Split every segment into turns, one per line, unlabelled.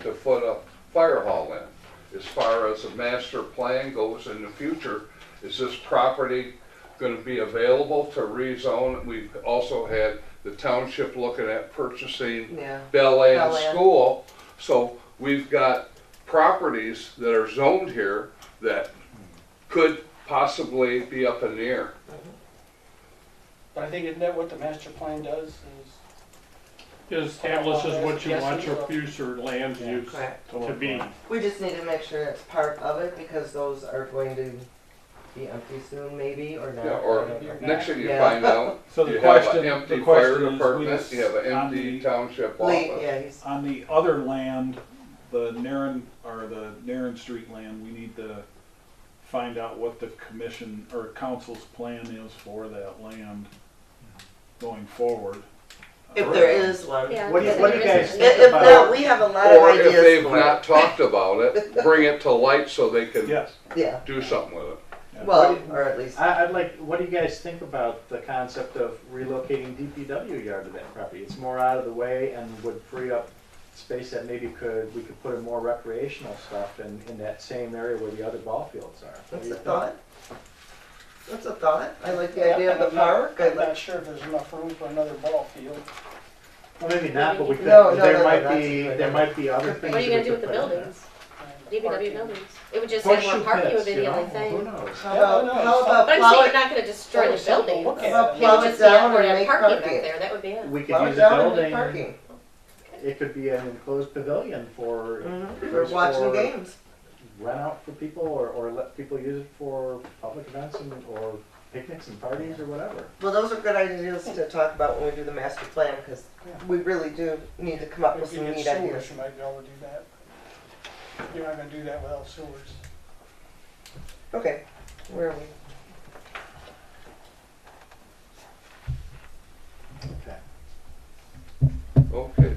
to put a fire hall in. As far as the master plan goes in the future, is this property gonna be available to rezone? We've also had the township looking at purchasing
Yeah.
Bel Ann
Bel Air.
School. So we've got properties that are zoned here that could possibly be up in the air.
But I think, isn't that what the master plan does, is
It establishes what you want your future land use
Correct.
to be.
We just need to make sure it's part of it because those are going to be empty soon, maybe, or not.
Yeah,
I
or
don't know.
next thing you
Yeah.
find out,
So
you
the
have
question,
an
the
empty fire
question is, we
department,
just,
you have an
on
empty
the,
township
Lee,
office.
yeah, he's,
on the other land, the Naren, or the Naren Street land, we need to find out what the commission or council's plan is for that land going forward. Uh,
if there is one.
Yeah.
What do you, what do you guys
If,
think
if not,
about,
we have a lot
Or
of
if
ideas
they've
for
not talked about it, bring it to light so they can
Yes.
it. Yeah.
do something with it.
Well, or at least
I, I'd like, what do you guys think about the concept of relocating DPW yard to that property? It's more out of the way and would free up space that maybe could, we could put in more recreational stuff in, in that same area where the other ball fields are. What
that's
do you
a
think?
thought. That's a thought. I like the idea of the park. I
I'm not
like.
sure if there's enough room for another ball field.
Well, maybe not, but we could,
No, no, no, no,
there might
that's a
be,
good
there
idea.
might be other
What
things.
What are you
that
gonna do
we
with the
could put in there.
buildings? DPW
Parking.
buildings? It would just have
Horseshoe
more parking would be
pits, you
the
know,
only
who
thing.
knows?
How about,
Yeah, I know.
how about
But I'm
plow
saying
it?
you're not gonna destroy the
Always have a
building. It
look
would
at
How about
it.
plow it
just be
down
outward
and
and
make
parking back
parking?
there, that would be it.
We could
Plow it
use a
down and make
building,
parking.
it could be an enclosed pavilion for,
Mm-hmm.
Mhm. We're
There's
watching
four-
games.
rent out for people or, or let people use it for public events and, or picnics and parties or whatever.
Well, those are good ideas to talk about when we do the master plan, because we really do need to come up with
If you
some
get
neat
sewers,
ideas.
you might be able to do that. You're not gonna do that without sewers.
Okay, where are we?
Okay.
Okay.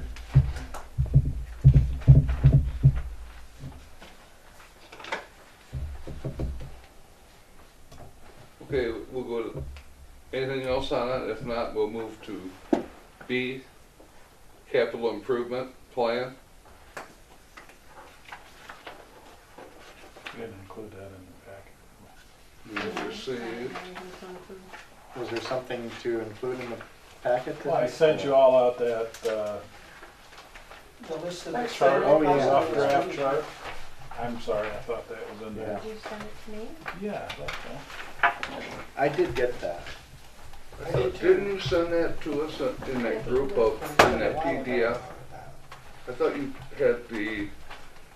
Okay, we'll go to, anything else on it? If not, we'll move to B, capital improvement plan.
We didn't include that in the packet.
Move to C.
Was there something to include in the packet?
Well, I sent you all out that, uh,
The list of.
That's
chart,
Oh,
oh,
yeah.
yeah, off draft chart. I'm sorry, I thought that was in there.
Yeah.
You send it to me?
Yeah, that's all.
I did get that.
I did
Uh, Didn't
too.
you send that to us in that group of, in that PDF? I thought you had the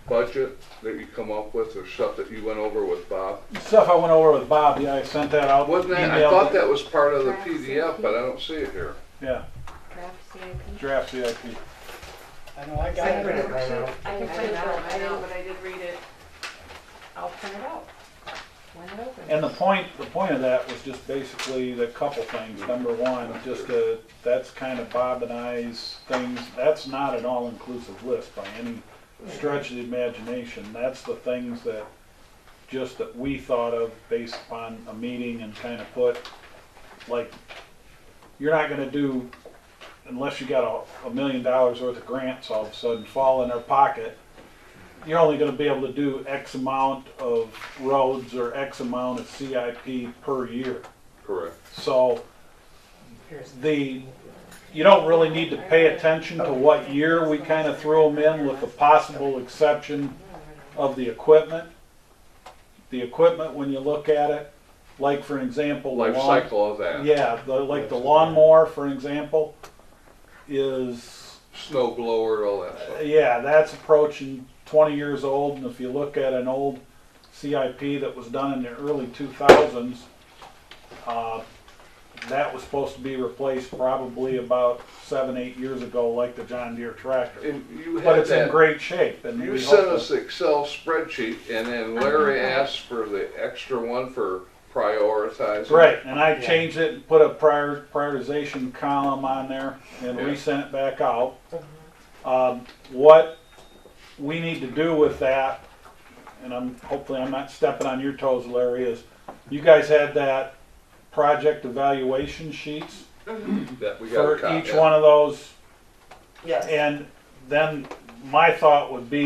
budget that you come up with or stuff that you went over with Bob.
Stuff I went over with Bob, yeah, I sent that out.
Wasn't that, I
emailed
thought
it.
that was part of the PDF, but I don't see it here.
Yeah,
Draft CIP.
draft CIP.
I know, I
I
got
printed
it.
mine out.
I can
I
print
didn't
it out, I
know,
know.
but I did read it. I'll print it out.
When it opens.
And the point, the point of that was just basically the couple things. Number one, just uh that's kind of Bob and I's things. That's not an all-inclusive list by any stretch of the imagination. That's the things that, just that we thought of based upon a meeting and kind of put, like, you're not gonna do, unless you got a, a million dollars worth of grants all of a sudden fall in our pocket, you're only gonna be able to do X amount of roads or X amount of CIP per year.
Correct.
So the, you don't really need to pay attention to what year we kind of threw them in with the possible exception of the equipment. The equipment, when you look at it, like for example, the
Life
lawn-
cycle of that.
Yeah, the, like the lawnmower, for example, is,
Snow blower, all that stuff.
yeah, that's approaching twenty years old. And if you look at an old CIP that was done in the early two thousands, uh, that was supposed to be replaced probably about seven, eight years ago, like the John Deere tractor.
And you
But
had
it's in
that,
great shape and
you
we
sent
hope
us the Excel spreadsheet and then Larry asked for the extra one for prioritizing.
that- Right, and I
Yeah.
changed it and put a prior, prioritization column on there
Yeah.
and
Mm-hmm.
resent it back out. Um, what we need to do with that, and I'm, hopefully I'm not stepping on your toes, Larry, is you guys had that project evaluation sheets
That we got a
for
copy.
each one of those
Yes.
And then my thought would be